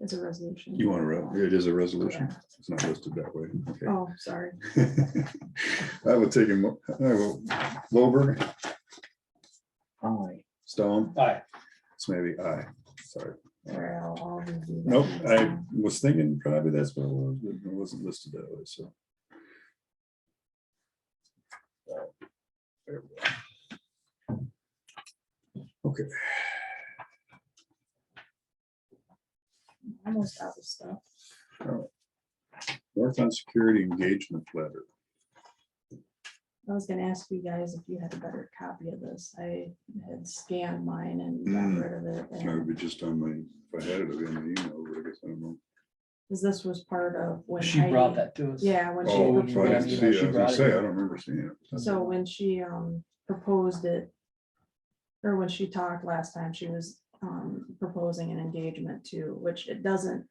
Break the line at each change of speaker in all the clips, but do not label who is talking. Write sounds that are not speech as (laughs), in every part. It's a resolution.
You want to, re- it is a resolution.
Yeah.
It's not listed that way. Okay.
Oh, sorry.
(laughs) I will take him, I will, Wilbur,
Aye.
Stone,
Aye.
it's maybe I, sorry.
Sorry, I'll- I'll review that
Nope,
next
I
time.
was thinking probably that's what it was, but it wasn't listed that way, so. There we go. Okay,
Almost out of stuff.
North on Security Engagement Letter.
I was gonna ask you guys if you had a better copy of this. I had scanned mine and
Mm.
got rid of it.
I would
and-
be just on my, if I had it, in the email, but I guess I don't know.
Cause this was part of when.
She brought
Heidi-
that to us.
Yeah, when she.
Oh,
Oh, I
looked
right,
at
didn't
it.
see it. I
She
was
brought
gonna
it
say, I
up.
don't remember seeing it.
So when she um proposed it. Or when she talked last time, she was um proposing an engagement to, which it doesn't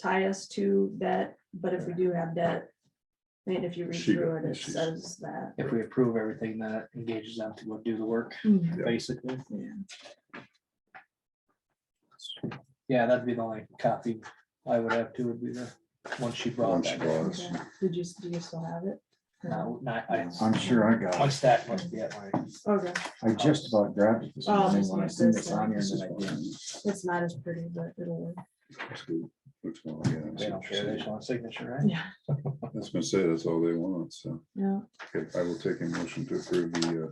tie us to debt, but if we do have debt. And if you read
She-
through it, it
she's-
says that.
If we approve everything that engages them to go do the work,
Mhm.
Yeah.
basically.
Yeah.
Yeah, that'd be the only copy I would have too, would be the one she brought.
Once
back.
brought. Yes.
Okay. Did you, do you still have it?
No, not, I,
I'm sure I
my
got it.
stack must be at my,
Okay,
I just about grabbed it this
Oh,
morning
this
when I
is
seen
this
this on here
This
and
is
then I
fine.
didn't.
it's not as pretty, but it'll work.
Looks good. Looks well, yeah, I
they
see
don't
what you're
care, they
saying.
just want a signature, right?
Yeah,
That's gonna say, that's all they want, so.
yeah.
Okay, I will take a motion to approve the uh,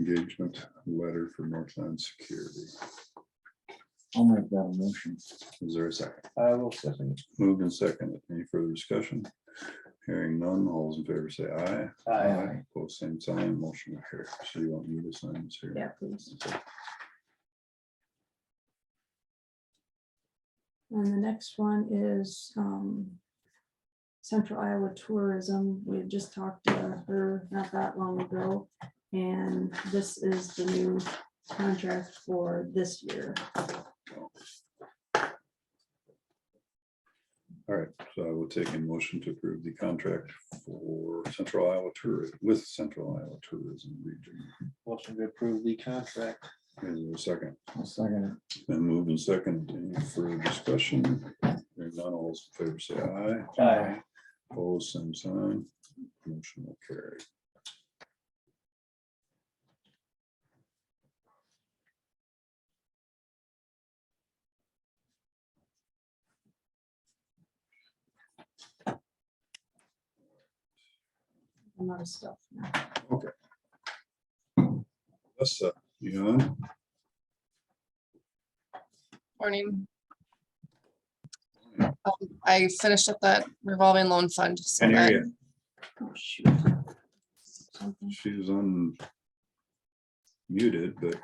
engagement letter for Northland Security.
I'll make that a motion.
Is there a second?
I will second.
Moved and second. Any further discussion? Hearing none, all those in favor say aye.
Aye.
Both same sign, motion carries. So you want me to sign this here?
Yeah, please. And the next one is um, Central Iowa Tourism. We had just talked to her not that long ago. And this is the new contract for this year.
All right, so I will take a motion to approve the contract for Central Iowa Tourism, with Central Iowa Tourism Region.
Motion to approve the contract.
Is there a second?
I'll second
Then moved and second, any further discussion? Hearing none, all those in favor say aye.
Aye.
Opposed, same sign. Motion will carry.
A lot of stuff. now.
Melissa, you on?
Morning. Um, I finished up that revolving loan fund. Uh, so
Can hear
that-
you.
Oh, shoot. Something.
She's on muted, but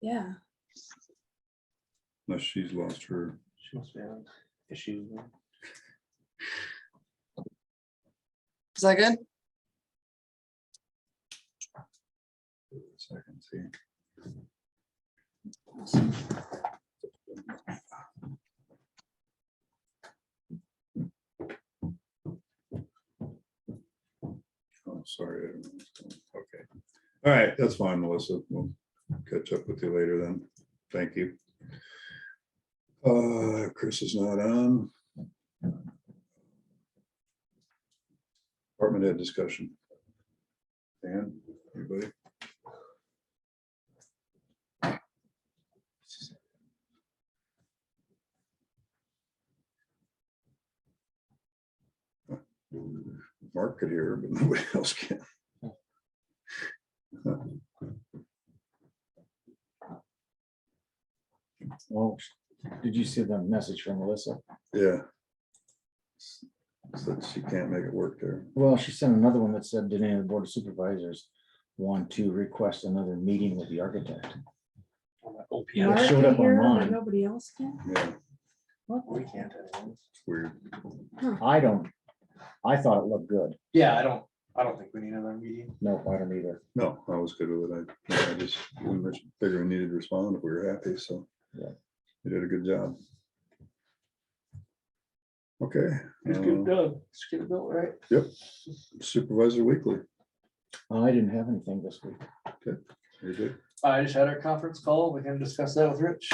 Yeah,
unless she's lost her,
She must be having issues. with-
Is that good?
Oh, second, see. Oh, sorry. I don't know what's going on. Okay. All right, that's fine, Melissa. We'll catch up with you later then. Thank you. Uh, Chris is not on. Department head discussion. Dan, anybody? Mark could hear, but (laughs) nobody else can.
it. Well, did you see the message from Melissa?
Yeah. So she can't make it work there.
Well, she sent another one that said, did any of the board of supervisors want to request another meeting with the architect?
on that OPM.
Yeah, it
Mark
showed up
can hear it, but
online.
Nobody else can?
Yeah,
What?
We can't. have one.
it's weird.
I don't, I thought it looked good.
Yeah, I don't, I don't think we need another meeting.
Nope, I don't either.
No, I was good with it. I I just we much bigger needed to respond if we were happy, so.
Yeah.
You did a good job. Okay. uh,
done. Let's get it built, right?
Supervisor Weekly,
I didn't have anything this week.
you're good.
I just had our conference call. We can discuss that with Rich.